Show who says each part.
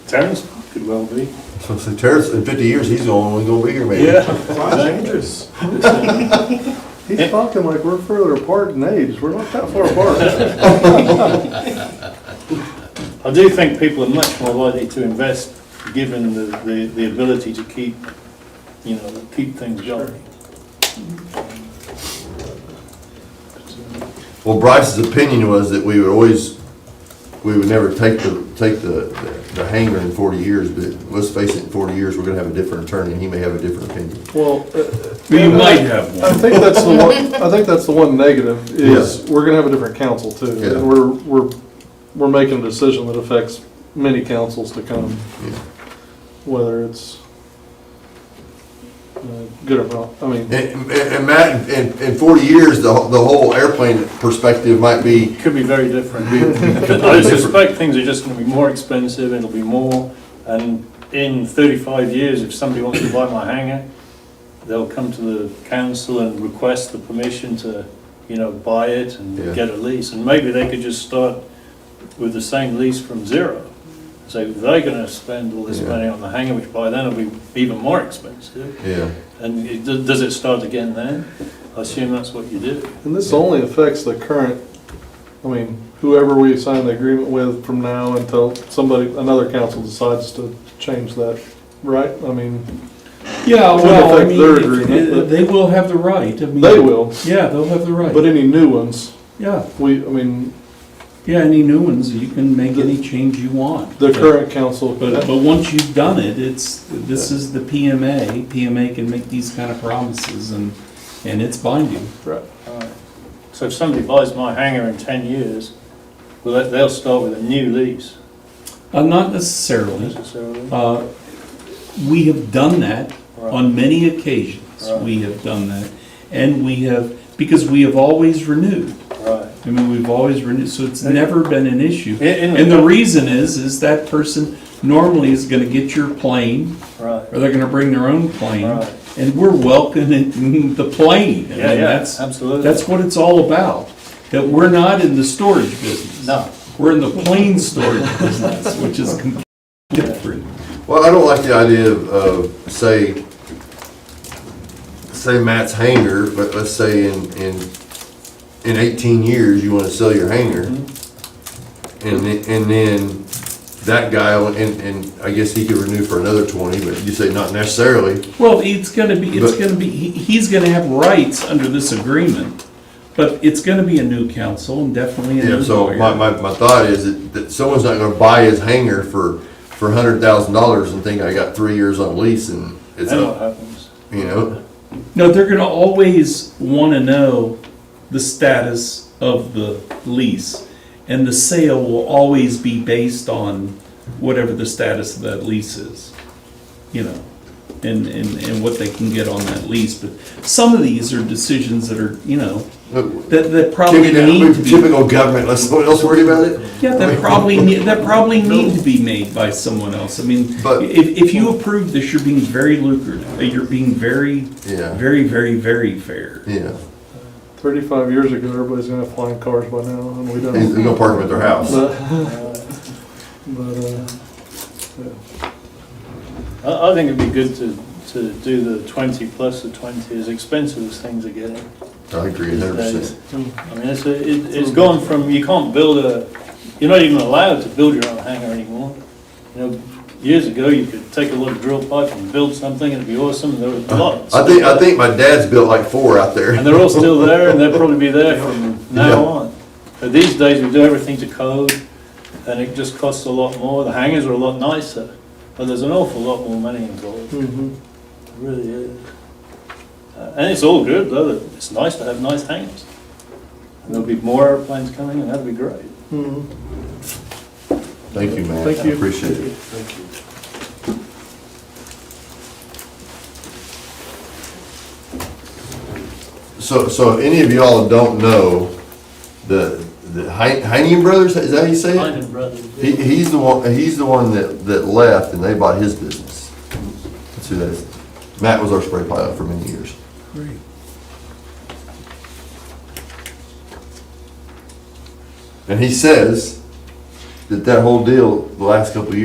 Speaker 1: Terrence could well be.
Speaker 2: So, so Terrence, in fifty years, he's the only one gonna be here, maybe.
Speaker 3: Fly's dangerous.
Speaker 4: He's talking like we're further apart in age, we're not that far apart.
Speaker 1: I do think people are much more likely to invest, given the, the, the ability to keep, you know, keep things going.
Speaker 2: Well, Bryce's opinion was that we would always, we would never take the, take the, the hanger in forty years, but let's face it, in forty years, we're gonna have a different attorney, and he may have a different opinion.
Speaker 4: Well, uh,
Speaker 5: You might have
Speaker 4: I
Speaker 5: one.
Speaker 4: think that's the one, I think that's the one negative, is we're gonna have a different council too.
Speaker 2: Yeah.
Speaker 4: And we're, we're, we're making a decision that affects many councils to come,
Speaker 2: Yeah.
Speaker 4: whether it's uh, good or wrong, I mean,
Speaker 2: And, and- and Matt, in, in forty years, the, whole- the whole airplane perspective might be.
Speaker 1: Could be very different. I suspect things are just gonna be more expensive, it'll be more, and in thirty-five years, if somebody wants to buy my hangar, they'll come to the council and request the permission to, you know, buy it
Speaker 2: Yeah.
Speaker 1: and get a lease, and maybe they could just start with the same lease from zero. So they're gonna spend all this
Speaker 2: Yeah.
Speaker 1: money on the hangar, which by then will be even more expensive,
Speaker 2: Yeah.
Speaker 1: and it- does it start again then? I assume that's what you do.
Speaker 4: and this only affects the current, I mean, whoever we sign the agreement with from now until somebody, another council decides to change that, right? I mean,
Speaker 5: Yeah,
Speaker 4: Wouldn't
Speaker 5: well, I
Speaker 4: affect
Speaker 5: mean,
Speaker 4: their
Speaker 5: if-
Speaker 4: agreement, but-
Speaker 5: they will have the right. I mean-
Speaker 4: they will,
Speaker 5: Yeah, they'll have the
Speaker 4: but
Speaker 5: right.
Speaker 4: any new ones,
Speaker 5: Yeah,
Speaker 4: we, I mean,
Speaker 5: yeah, any new ones, you can make any change you want.
Speaker 4: the current council.
Speaker 5: But, but once you've done it, it's, this is the PMA. PMA can make these kind of promises and, and it's binding.
Speaker 4: Right.
Speaker 1: Alright. So if somebody buys my hangar in ten years, well, they- they'll start with a new lease
Speaker 5: Uh, Not necessarily.
Speaker 1: necessarily.
Speaker 5: Uh, We have done that
Speaker 1: Right.
Speaker 5: on many occasions.
Speaker 1: Right.
Speaker 5: We have done that. And we have, because we have always renewed.
Speaker 1: Right.
Speaker 5: I mean, we've always renewed, so it's never been an issue.
Speaker 1: In- in-
Speaker 5: And the reason is, is that person normally is gonna get your plane,
Speaker 1: Right.
Speaker 5: or they're gonna bring their own plane,
Speaker 1: Right.
Speaker 5: and we're welcoming the plane. I
Speaker 1: Yeah,
Speaker 5: mean,
Speaker 1: yeah,
Speaker 5: that's-
Speaker 1: absolutely.
Speaker 5: That's what it's all about, that we're not in the storage business.
Speaker 1: No.
Speaker 5: We're in the plane storage business, which is completely different.
Speaker 2: Well, I don't like the idea of, of, say, say Matt's hanger, but let's say in, in, in eighteen years, you wanna sell your hanger. And then, and then that guy, and, and I guess he could renew for another twenty, but you say not necessarily.
Speaker 5: Well, it's gonna be, it's
Speaker 2: But-
Speaker 5: gonna be, he- he's gonna have rights under this agreement, but it's gonna be a new council and definitely a new
Speaker 2: Yeah, so my,
Speaker 5: lawyer.
Speaker 2: my, my thought is that, that someone's not gonna buy his hanger for, for a hundred thousand dollars and think I got three years on lease and it's
Speaker 1: Then what
Speaker 2: up,
Speaker 1: happens?
Speaker 2: you know?
Speaker 5: No, they're gonna always wanna know the status of the lease. And the sale will always be based on whatever the status of that lease is, you know, and, and, and what they can get on that lease. But some of these are decisions that are, you know, that, that probably
Speaker 2: Typical
Speaker 5: need to be.
Speaker 2: typical government, let someone else worry about it?
Speaker 5: Yeah, that probably, ne- that probably need to be made by someone else. I mean,
Speaker 2: But-
Speaker 5: if, if you approve this, you're being very lucrative, Uh, you're being very,
Speaker 2: Yeah.
Speaker 5: very, very, very fair.
Speaker 2: Yeah,
Speaker 4: Thirty-five years ago, everybody's gonna have flying cars by now, and we
Speaker 2: there's
Speaker 4: don't.
Speaker 2: no parking at their house.
Speaker 4: But,
Speaker 1: Right.
Speaker 4: but, uh,
Speaker 1: I, I think it'd be good to, to do the twenty plus the twenty, as expensive as things are getting.
Speaker 2: I agree,
Speaker 1: these
Speaker 2: hundred
Speaker 1: days.
Speaker 2: percent.
Speaker 1: I mean, it's, a- it- it's gone from, you can't build a, you're not even allowed to build your own hangar anymore. You know, years ago, you could take a little drill pipe and build something, and it'd be awesome, and there was lots.
Speaker 2: I think, I think my dad's built like four
Speaker 1: And
Speaker 2: out there.
Speaker 1: they're all still there, and they'll probably be there from now on. But these days, we do everything to code, and it just costs a lot more. The hangars are a lot nicer, but there's an awful lot more money involved,
Speaker 4: mhm.
Speaker 1: There really is. Uh, And it's all good, though, that it's nice to have nice hangars. And there'll be more airplanes coming, and that'd be great.
Speaker 4: Mhm.
Speaker 2: Thank you, man.
Speaker 4: Thank you.
Speaker 2: Appreciate it. So, so if any of y'all don't know, the, the Hein- Heinian Brothers, is that how you say it? He, he's the one, he's the one that, that left and they bought his business. That's who that is. Matt was our spray pilot for many years.
Speaker 5: Great.
Speaker 2: And he says that that whole deal, the last couple of years.